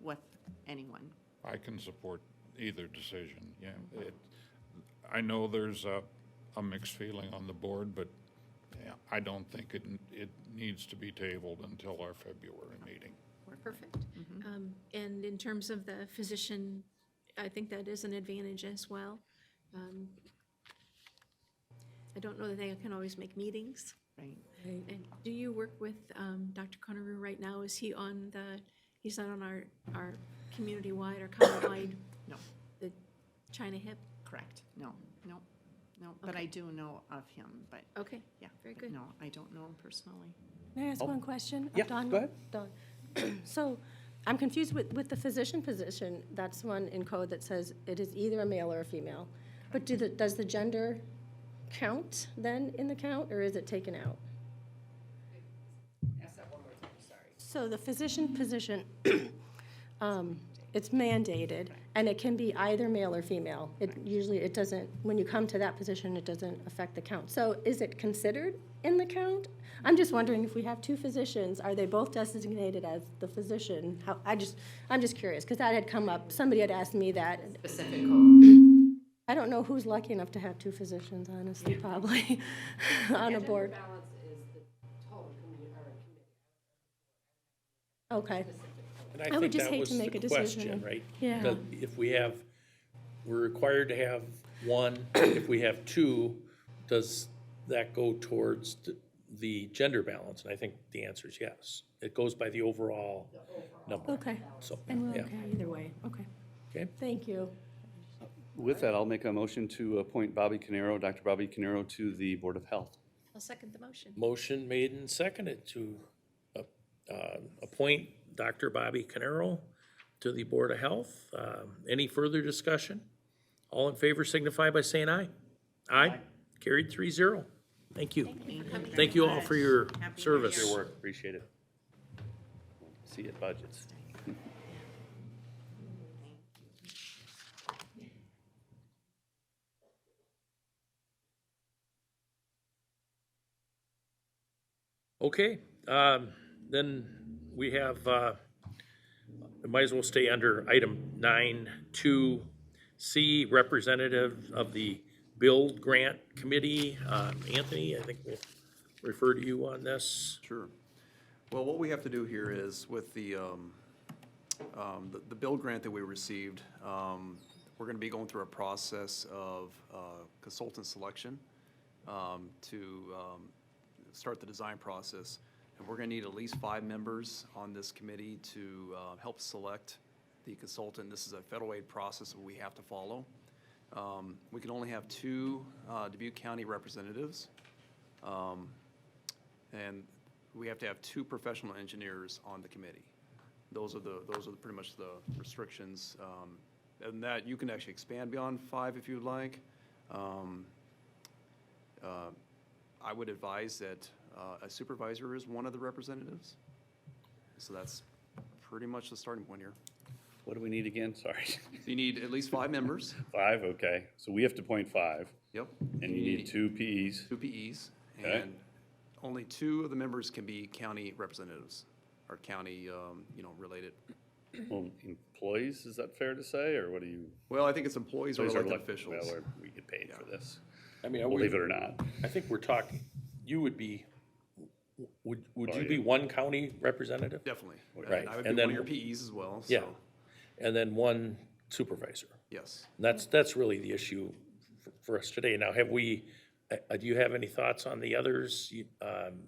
with anyone. I can support either decision, yeah. It- I know there's a, a mixed feeling on the board, but yeah, I don't think it, it needs to be tabled until our February meeting. Perfect. Mm-hmm. Um, And in terms of the physician, I think that is an advantage as well. Um, I don't know that they can always make meetings. Right. And do you work with um, Dr. Conneru right now? Is he on the, he's not on our, our community-wide or county-wide, No, the China hip? correct. No, no, no. But I do know of him, but Okay, yeah. Very but good. No, I don't know him personally. May I ask one question? of Oh. yeah, Dawn? go ahead. Dawn. So I'm confused with, with the physician position. That's the one in code that says it is either a male or a female. But do the, does the gender count then in the count, or is it taken out? So the physician position, um, it's mandated, and it can be either male or female. It usually, it doesn't, when you come to that position, it doesn't affect the count. So is it considered in the count? I'm just wondering if we have two physicians, are they both designated as the physician? How, I just, I'm just curious, because that had come up, somebody had asked me that. specific code. I don't know who's lucky enough to have two physicians, honestly, probably, on a board. Gender balance is the total committee, or committee. Okay, And I would think just that hate to was the make a question, decision. Right? Yeah. That If we have, we're required to have one, if we have two, does that go towards th- the gender balance? And I think the answer is yes. It goes by the overall number, okay. so, And we're yeah. okay either way, okay. Okay. Thank you. With that, I'll make a motion to appoint Bobby Canaro, Dr. Bobby Canaro, to the Board of Health. I'll second the motion. Motion made and seconded to uh, uh, appoint Dr. Bobby Canaro to the Board of Health. Um, Any further discussion? All in favor signify by saying aye. Aye. Carried three zero. Thank you. Thank you all for your service. Your work, appreciate it. See you at budgets. Okay, um, then we have, uh, might as well stay under item nine two C, representative of the Build Grant Committee. Um, Anthony, I think we'll refer to you on this. Sure. Well, what we have to do here is with the, um, um, the- the bill grant that we received, um, we're gonna be going through a process of uh, consultant selection um, to um, start the design process. And we're gonna need at least five members on this committee to uh, help select the consultant. This is a federal aid process that we have to follow. Um, We can only have two uh, Dubuque County representatives. Um, and we have to have two professional engineers on the committee. Those are the, those are pretty much the restrictions. um, And that, you can actually expand beyond five if you'd like. Um, uh, I would advise that uh, a supervisor is one of the representatives. So that's pretty much the starting point here. What do we need again? Sorry. You need at least five members. Five, okay. So we have to appoint five, Yep. and you need two PEs. Two PEs. Okay. And only two of the members can be county representatives or county, um, you know, related. Well, employees, is that fair to say, or what do you? Well, I think it's employees or Those are elected elect- officials. well, We get paid for this, I mean, believe it or not. I think we're talking, you would be, would, would you you be be one county representative? Definitely. Right, And I would be and one of then- your PEs as well, Yeah, so, and then one supervisor. yes. And That's, that's really the issue f- for us today. Now, have we, uh, uh, do you have any thoughts on the others? You- um,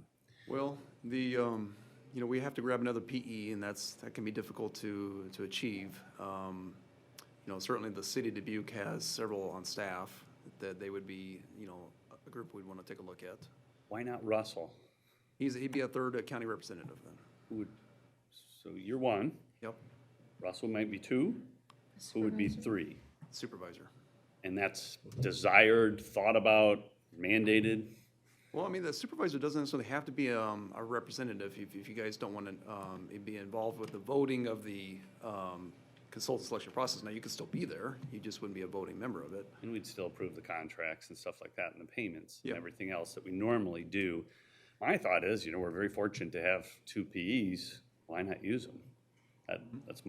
Well, the, um, you know, we have to grab another PE, and that's, that can be difficult to, to achieve. Um, You know, certainly the city of Dubuque has several on staff that they would be, you know, a group we'd want to take a look at. Why not Russell? He's, he'd be a third uh, county representative then. Who would, so you're one, Yep, Russell might be two, who would be three? supervisor. And that's desired, thought about, mandated? Well, I mean, the supervisor doesn't necessarily have to be um, a representative if if you guys don't want to be involved with the voting of the um, consultant selection process. Now, you could still be there, you just wouldn't be a voting member of it. And we'd still approve the contracts and stuff like that and the payments and Yep. everything else that we normally do. My thought is, you know, we're very fortunate to have two PEs. Why not use them? That, that's my